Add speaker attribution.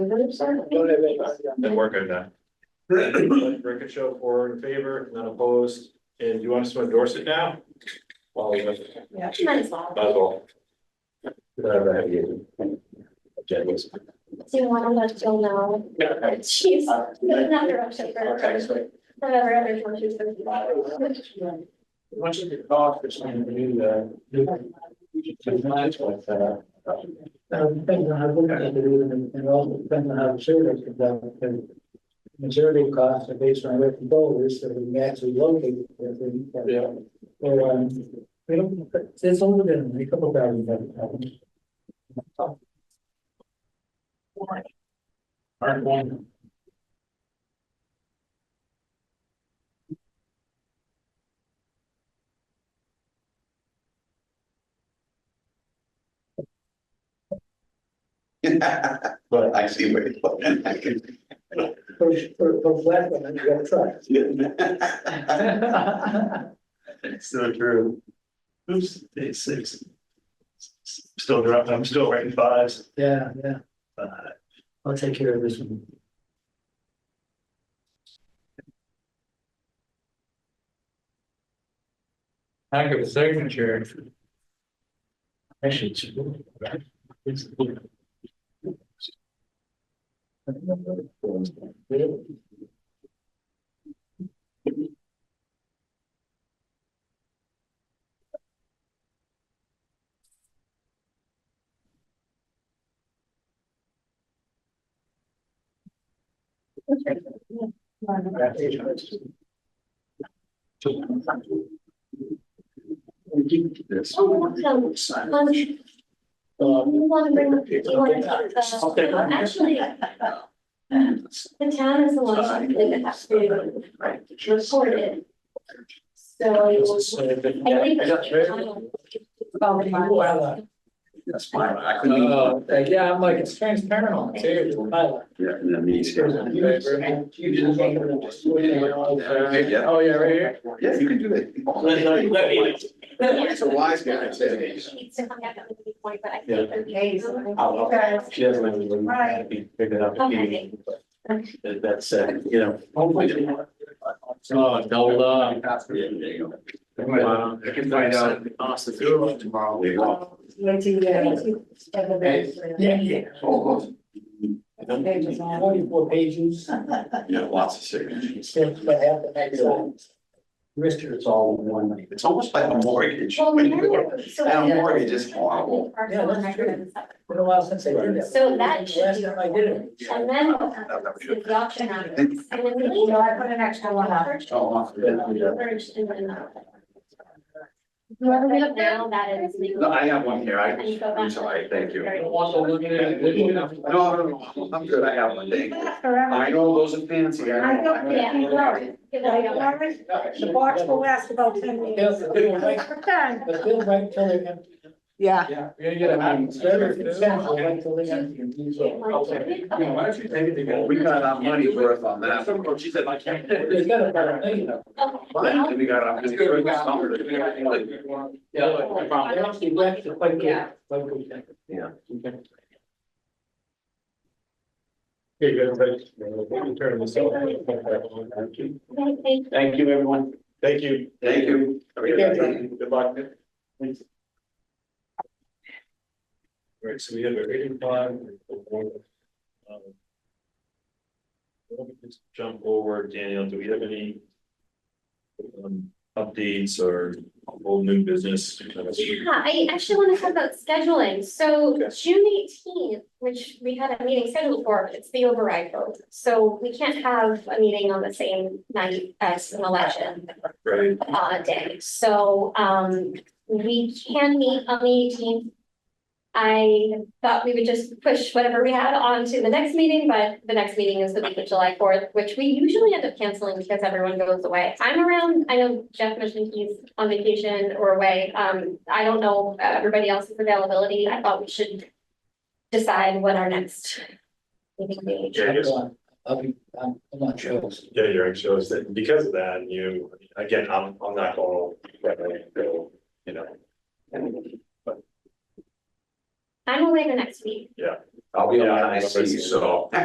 Speaker 1: Don't have anybody on
Speaker 2: Then we're good then.
Speaker 1: that. Record show four in favor, none opposed, and do you want us to endorse it now? Well, we might as
Speaker 3: Might as well.
Speaker 1: well. Whatever have you. Jen was-
Speaker 3: Do you want to let Jill know? that She's, there's another option for
Speaker 1: Okay,
Speaker 3: her,
Speaker 1: so.
Speaker 3: whatever other one she's going to
Speaker 1: Once you get off, there's something to do there.
Speaker 4: Depends on how good they do it and- and also depends on how the survey is conducted. because The survey costs are based on where the goal is, so we can actually locate the thing.
Speaker 1: Yeah.
Speaker 4: Or, um, we don't, it's older than a couple thousand. dollars.
Speaker 1: Aren't one.
Speaker 5: But I see where you're going. I can-
Speaker 4: For, for, for flat one, you gotta try.
Speaker 5: So true. Oops, day six. Still dropping, I'm still writing fives.
Speaker 4: Yeah, yeah,
Speaker 5: Uh,
Speaker 4: I'll take care of this one.
Speaker 6: Lack of a signature.
Speaker 4: Actually, it's. it's-
Speaker 5: This.
Speaker 3: Oh, welcome. Um, you want to bring, you want to, uh, actually, the town is the one that has to report it. So I think.
Speaker 4: Well,
Speaker 5: That's fine, I couldn't.
Speaker 6: Oh, yeah, I'm like, it's transparent on the table.
Speaker 4: uh,
Speaker 5: Yeah, and then these here. Yeah.
Speaker 6: Oh, yeah, right here.
Speaker 5: Yeah, you can do that. It's a wise guy, I'd say.
Speaker 3: She needs to come back up with the point, but I think
Speaker 1: Yeah.
Speaker 3: they're days.
Speaker 1: I'll- She doesn't have anyone
Speaker 3: Right.
Speaker 1: happy picking up a key, but that- that's, uh, you know.
Speaker 6: Oh, double up.
Speaker 5: Yeah, there you go.
Speaker 1: I can find out. Awesome. Tomorrow.
Speaker 5: They walk.
Speaker 4: Yeah, yeah.
Speaker 5: Oh,
Speaker 4: Forty-four pages,
Speaker 5: Yeah, lots of signatures.
Speaker 4: except for half the next one.
Speaker 5: Mister, it's all one. It's almost like a mortgage.
Speaker 3: Well,
Speaker 5: When
Speaker 3: we
Speaker 5: you
Speaker 3: have.
Speaker 5: go-
Speaker 3: so-
Speaker 5: And a mortgage is horrible.
Speaker 3: Parcel and I couldn't-
Speaker 4: Been a while since I did that.
Speaker 3: So that should be.
Speaker 4: Last time I did it.
Speaker 3: And then. uh, is The option on. it. And then we. No, I put an extra one up.
Speaker 5: Oh, off the bed, yeah.
Speaker 3: Whoever we have now, that is legal.
Speaker 5: No, I have one here. I,
Speaker 3: And you go
Speaker 5: I'm
Speaker 3: back.
Speaker 5: sorry, thank you.
Speaker 3: Very
Speaker 6: Want to
Speaker 3: good.
Speaker 6: look at it?
Speaker 5: No, no, no, I'm good. I have one. Thank you.
Speaker 7: Forever.
Speaker 5: I know those are fancy. I know.
Speaker 7: I don't-
Speaker 5: I
Speaker 7: yeah,
Speaker 5: know.
Speaker 3: Give it
Speaker 7: Like,
Speaker 3: a go.
Speaker 7: all right, The box will last about ten
Speaker 4: They'll-
Speaker 7: minutes.
Speaker 4: they'll wait-
Speaker 7: Okay.
Speaker 4: But they'll wait till they're empty.
Speaker 7: Yeah.
Speaker 6: We're gonna get a
Speaker 4: Um,
Speaker 6: hand.
Speaker 4: so every consent, they'll wait till they're empty. and use all-
Speaker 1: Why don't you take it together?
Speaker 5: Well, We got our money's worth on that.
Speaker 1: She said, I can't.
Speaker 4: They got about a million of them.
Speaker 5: And we got our.
Speaker 6: It's good, we got-
Speaker 5: Like,
Speaker 6: Yeah,
Speaker 4: They actually left it quite good, quite good.
Speaker 1: Hey, good, thanks. We'll Turn this off.
Speaker 3: Thank- thank
Speaker 1: Thank you, everyone. Thank you.
Speaker 5: Thank you. Have a good
Speaker 4: Thank
Speaker 5: night.
Speaker 1: Good luck. All right, so we have a reading plan. Let me just jump over, Daniel, do we have any um, updates or old new business?
Speaker 3: Yeah, I actually want to talk about scheduling. So
Speaker 1: Okay.
Speaker 3: June eighteenth, which we had a meeting scheduled for, it's the override vote. So we can't have a meeting on the same night as an election
Speaker 1: Right,
Speaker 3: uh day. So um we can meet on the eighteenth. I thought we would just push whatever we had on to the next meeting, but the next meeting is the week of July fourth, which we usually end up canceling because everyone goes away. I'm around, I know Jeff mentioned he's on vacation or away. Um, I don't know uh, everybody else's availability. I thought we should decide what our next meeting date.
Speaker 1: Yeah, I guess-
Speaker 4: I'll be, I'm, I'm not sure.
Speaker 1: yeah, your act shows that because of that, you, again, I'm, I'm not going, to, you know.
Speaker 8: I'm away the next week.
Speaker 5: I'll be on NIC, so.